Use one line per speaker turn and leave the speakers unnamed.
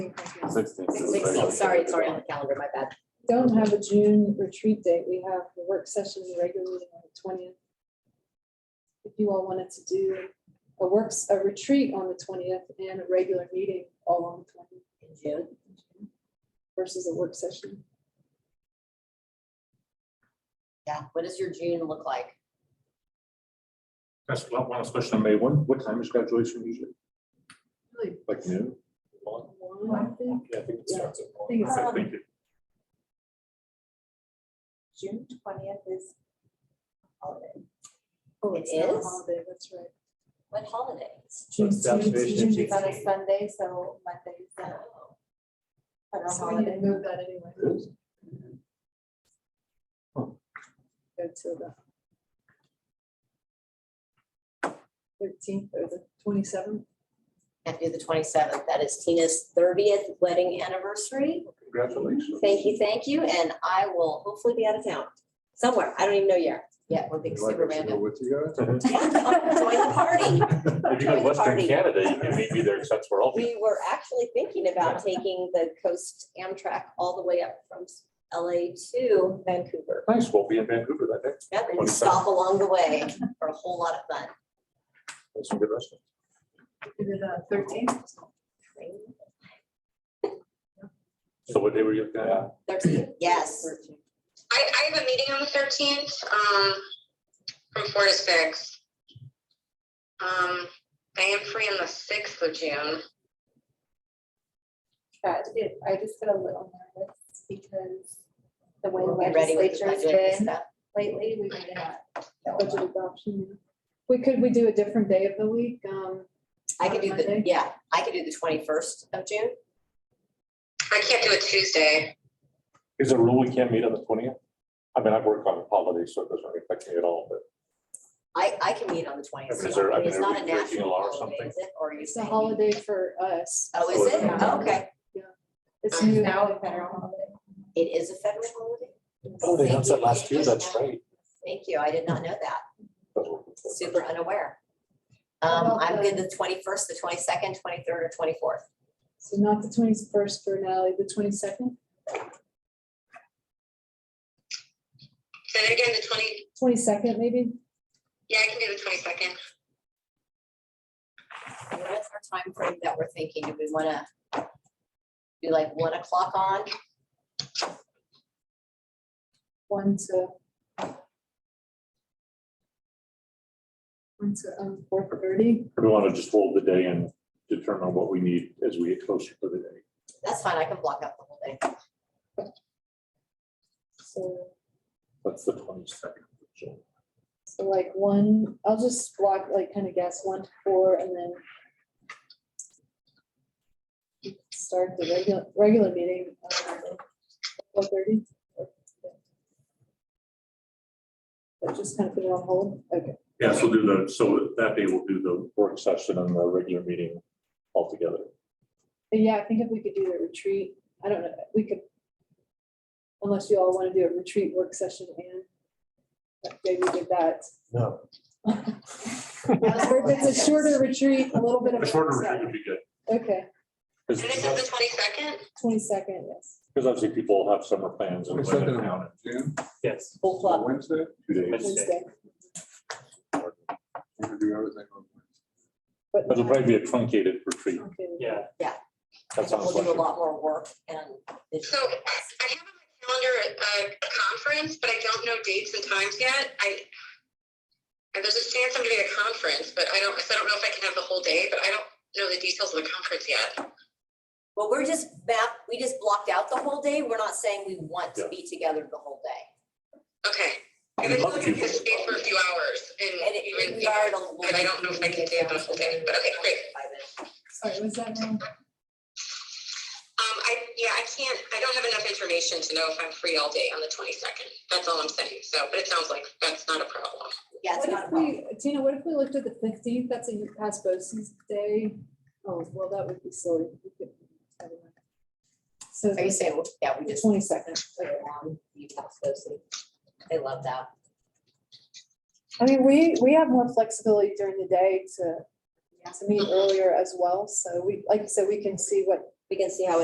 Sixteenth.
Sixteen, sorry, it's already on the calendar, my bad.
Don't have a June retreat date. We have the work session regularly on the twentieth. If you all wanted to do a works, a retreat on the twentieth and a regular meeting all on the twentieth
In June,
versus a work session.
yeah, what does your June look like?
That's one last question on May one. What time is graduation usually? Like noon? One?
One, I think.
Yeah, I think it
Yeah.
starts at one.
think it's-
I think it-
June twentieth is holiday.
Oh,
It
it's not a
is?
holiday, That's right.
What holidays?
June
it's the observation
June-
of
It's on a
June-
Sunday, so Monday's the federal
So we need
holiday.
to move that anyway.
it is.
Go to the thirteenth or the twenty-seventh.
Can't do the twenty-seventh, that is Tina's thirtieth wedding anniversary.
Congratulations.
Thank you, thank you, and I will hopefully be out of town, somewhere, I don't even know yet. Yeah, we're being
Would you like
super
us to go
random.
With you guys.
Yeah, Join the party.
If you go to
Join the
Western
party.
Canada, you can maybe there, that's where I'll be.
We were actually thinking about taking the coast Amtrak all the way up from LA to Vancouver.
Nice, we'll be in Vancouver that day.
Yep, and stop along the way for a whole lot of fun.
There's some good restaurants.
The thirteenth.
So what day were you looking at?
Thirteen, yes.
I, I have a meeting on the thirteenth, um, from four to six. Um, I am free on the sixth of June.
Got it. I just get a little nervous because the way
We'll
the
be ready with the
legislature's
budget and
been
stuff.
lately, we may not. know
budget adoption. Mm-hmm. We could, we do a different day of the week, um,
I could do the,
Monday?
yeah, I could do the twenty-first of June.
I can't do it Tuesday.
Is there a rule we can't meet on the twentieth? I mean, I work on holidays, so it doesn't affect me at all, but
I, I can meet on the twentieth.
Is there- I mean,
It's
are
not
we
a
breaking
national
law or
holiday,
something?
is it? Or are you
it's a
saying?
holiday for us.
Oh, is it?
Yeah.
Okay.
It's
It's
new.
now a federal holiday.
It is a federal holiday?
oh, they announced that
Thank you.
last year, that's right.
Thank you. I did not know that.
That's what we thought.
Super unaware. Um,
About
I'm
the-
good the twenty-first, the twenty-second, twenty-third, or twenty-fourth.
So not the twenty-first for Natalie, the twenty-second,
Then again, the twenty,
twenty-second maybe?
yeah, I can do the twenty-second.
What's our time frame that we're thinking? Do we wanna do like one o'clock on?
One to. One to, um, four thirty,
We want to just hold the day and determine what we need as we get closer to the day.
That's fine. I can block out the whole day.
so,
That's the twenty-second.
so like one, I'll just block, like kind of guess one to four and then. Start the regular, regular meeting. Four thirty. But just kind of put it on hold, okay,
Yeah, so do the, so that day we'll do the work session and the regular meeting altogether.
But yeah, I think if we could do a retreat, I don't know, we could. Unless you all want to do a retreat work session and. that day we did that.
No.
Or if it's a shorter retreat, a little bit of.
A
a
shorter retreat would be good.
Okay,
And this is the twenty-second?
twenty-second, yes.
Because obviously people have summer plans and. when they're down.
June,
Yes.
Full club.
Wednesday,
Two days.
Wednesday,
we're gonna do everything on
but.
It'll probably be a truncated retreat.
Okay.
Yeah.
That sounds
We'll
like.
do a lot more work and.
So I I have on my calendar a, a conference, but I don't know dates and times yet. I, and there's a chance I'm gonna be at a conference, but I don't, so I don't know if I can have the whole day, but I don't know the details of the conference yet.
Well, we're just map, we just blocked out the whole day. We're not saying we want to be together the whole day.
Okay.
I'd
And I feel
love
like
to.
I can stay for a few hours
And
and
it-
even,
we are at a-
but I don't know if I can stay the whole day, but okay, great.
By then.
Sorry, was that wrong?
Um, I, yeah, I can't, I don't have enough information to know if I'm free all day on the twenty-second. That's all I'm saying. So, but it sounds like that's not a problem.
Yeah, it's
What
not a
if
problem.
we, Tina, what if we looked at the fifteenth, that's a Pasbosis day? Oh, well, that would be silly. We could- never mind. So
Are you saying, well, yeah, we
the
just.
twenty-second,
play around, you pass those things. They love that.
I mean, we, we have more flexibility during the
Mm-hmm.
day to, to meet earlier as well, so we, like you said, we can see what
We can see how it